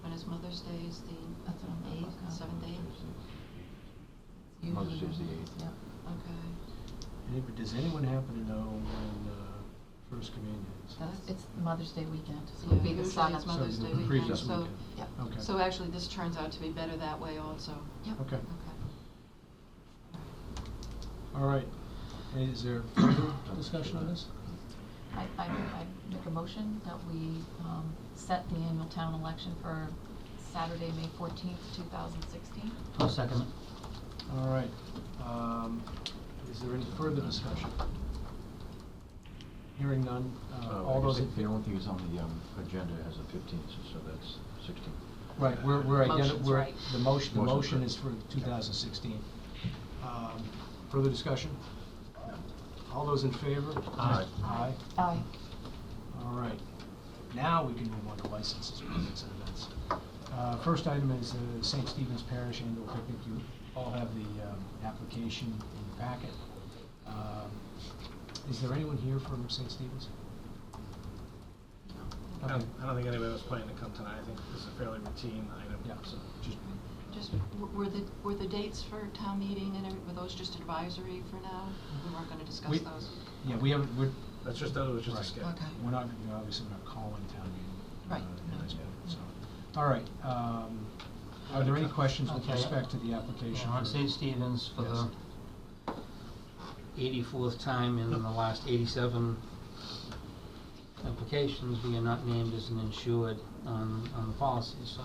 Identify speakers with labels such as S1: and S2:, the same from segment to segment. S1: when his Mother's Day is the
S2: That's what I'm
S1: eighth,
S2: looking.
S1: seventh, eighth?
S2: Usually
S3: Mother's Day's the
S2: Mother's-
S3: eighth.
S2: Yeah.
S1: Okay.
S4: Any- Does anyone happen to know when uh, First Communion is?
S2: That's,
S1: That's-
S2: it's Mother's Day weekend,
S1: Yeah,
S2: so it'll be the
S1: usually it's
S2: seventh.
S1: Mother's
S4: So
S1: Day
S4: the
S1: weekend,
S4: previous
S1: so,
S4: weekend.
S2: Yep.
S4: Okay.
S1: so uh, actually this turns out to be better that way also.
S2: Yep.
S4: Okay,
S1: Okay.
S4: all right. Hey, Is there further discussion on this?
S2: I, I, I make a motion that we, um, set the annual town election for Saturday, May fourteenth, two thousand sixteen.
S5: I'll second it.
S4: All right. Um, Is there any further discussion? Hearing none. uh,
S3: Uh,
S4: All
S3: I guess
S4: those, in-
S3: The only thing is on the um, agenda as the fifteenth, so that's sixteen.
S4: right, we're, we're identi-
S2: Motion's
S4: we're,
S2: right.
S4: the motion, the
S3: Motion's
S4: motion
S3: right.
S4: is for 2016. Um, Further discussion? All those in favor?
S3: Aye.
S4: Aye.
S2: Aye.
S4: All right. Now we can move on to licenses, permits, and events. Uh, First item is uh, St. Stephen's Parish Annual Picnic. You all have the um, application in your packet. Um, Is there anyone here from St. Stephen's?
S6: I
S4: Okay.
S6: don't, I don't think anybody was planning to come tonight, I think this is a fairly routine item,
S4: Yeah,
S6: so.
S4: just,
S1: Just, w- were the, were the dates for town meeting and, every- were those just advisory for now? We weren't gonna discuss
S4: We-
S1: those?
S4: yeah, we haven't, we're,
S6: That's just, that was just a
S4: Right.
S6: skip.
S1: Okay.
S4: we're not, you know, obviously we're not calling town meeting.
S2: Right.
S4: uh,
S1: No.
S4: as yet, so. All right. um, Are there any questions with
S5: Okay.
S4: respect to the application?
S5: On
S4: for-
S5: St. Stephen's for
S4: Yes.
S5: the eighty-fourth time in the last eighty-seven applications, we are not named as an insured on, on the policy, so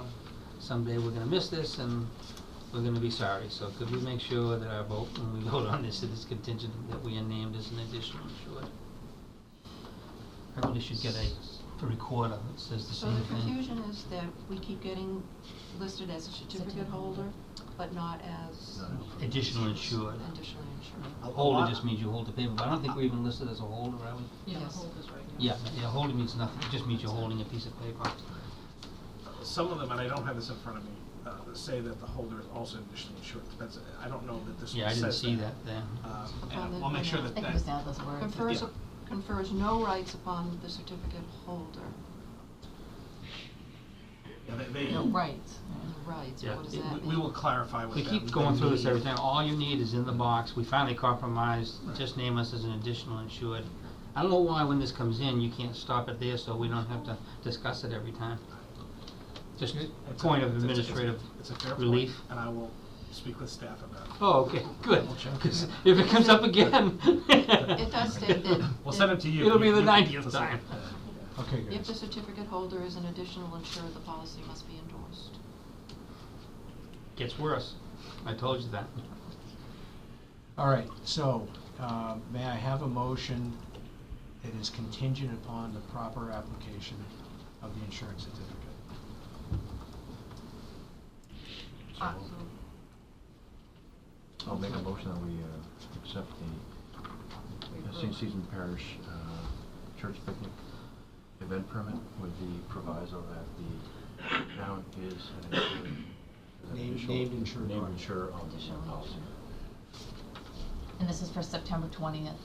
S5: someday we're gonna miss this and we're gonna be sorry, so could we make sure that our vote, when we vote on this, it is contingent that we are named as an additional insured? I really should get a recorder that says the
S1: So
S5: same
S1: the
S5: thing.
S1: confusion is that we keep getting listed as a certificate
S2: Certificate holder.
S1: holder, but not as
S3: No, no.
S5: Additional insured.
S1: additional insured.
S5: A holder just means you hold the paper, but I don't think we're even listed as a holder, are we?
S2: Yeah,
S1: Yes.
S2: hold is right now.
S5: Yeah, yeah, holding means nothing, it just means you're holding a piece of paper.
S6: Some of them, and I don't have this in front of me, uh, say that the holder is also additionally insured, depends, I don't know that this
S5: Yeah,
S6: one
S5: I didn't
S6: says
S5: see that there.
S6: Um,
S1: On the-
S6: and we'll make sure
S1: yeah.
S2: I
S6: that
S2: think
S6: that.
S2: it was now those words.
S1: Confers,
S6: Yeah.
S1: confers no rights upon the certificate holder.
S6: yeah, they- they-
S2: No, Oh, right.
S1: Rights,
S5: Yeah.
S1: what does
S6: we-
S1: that mean?
S6: We will clarify with
S5: We
S6: them.
S5: keep
S6: the
S5: going through this
S6: need.
S5: every time, all you need is in the box, we finally compromised,
S6: Right.
S5: just name us as an additional insured. I don't know why when this comes in, you can't stop it there, so we don't have to discuss it every time. Just
S4: It-
S5: a
S6: It's
S5: point of
S6: it's a- it's a-
S5: administrative
S6: it's a fair point,
S5: relief.
S6: And I will speak with staff about it.
S5: Oh, okay, good,
S6: We'll check.
S5: 'cause if it comes up again.
S1: It does state that.
S6: We'll
S1: that
S6: send it to you.
S5: It'll be
S6: You-
S5: the
S6: you-
S5: 90th
S6: you'll send it.
S5: time.
S6: Yeah.
S4: Okay,
S1: If the
S4: guys.
S1: certificate holder is an additional insured, the policy must be endorsed.
S5: Gets worse, I told you that.
S4: All right, so, uh, may I have a motion that is contingent upon the proper application of the insurance certificate?
S3: So
S1: Ah,
S2: Uh,
S3: I'll make a motion that we uh, accept the uh, St. Stephen Parish uh, Church Picnic event permit with the proviso that the town is an insured- an
S4: Named-
S3: additional-
S4: named insured
S3: Named
S4: party.
S3: insurer on the
S2: Additional
S3: policy
S2: And this is for September twentieth.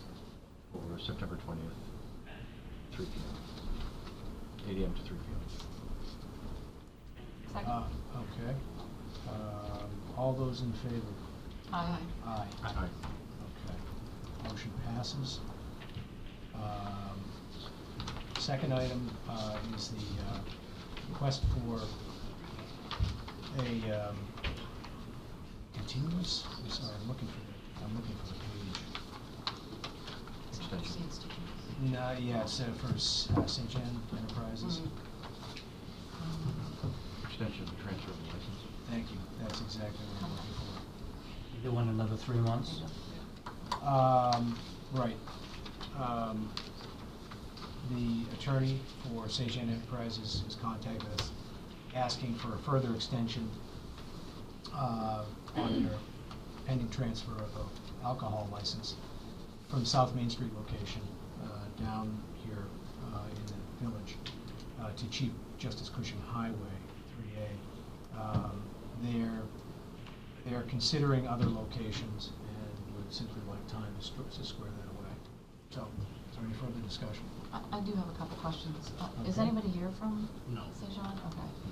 S3: for September twentieth, three P M. Eight A M to three P M.
S2: Second.
S4: Uh, Okay. Um, All those in favor?
S2: Aye.
S4: Aye.
S3: Aye.
S4: Okay. Motion passes. Um, Second item uh, is the uh, request for a um, continuance, I'm sorry, I'm looking for the, I'm looking for the page.
S3: Extension.
S1: Seems to be-
S4: No, yeah, so for S- uh, St. John Enterprises.
S1: Mm.
S3: Extension of the transfer of the license.
S4: Thank you, that's exactly what I'm looking for.
S5: They want another three months.
S1: Mm.
S4: Um, right. Um, the attorney for Sage Enterprises has contacted us, asking for a further extension, uh, on their pending transfer of the alcohol license from South Main Street location, uh, down here, uh, in the village, uh, to Chief Justice Cushing Highway, three A. Um, their they're considering other locations and would simply like time to stru- to square that away. So, is there any further discussion?
S2: I, I do have a couple questions. Uh, Is
S4: Okay.
S2: anybody here from
S6: No.
S2: St. John? Okay.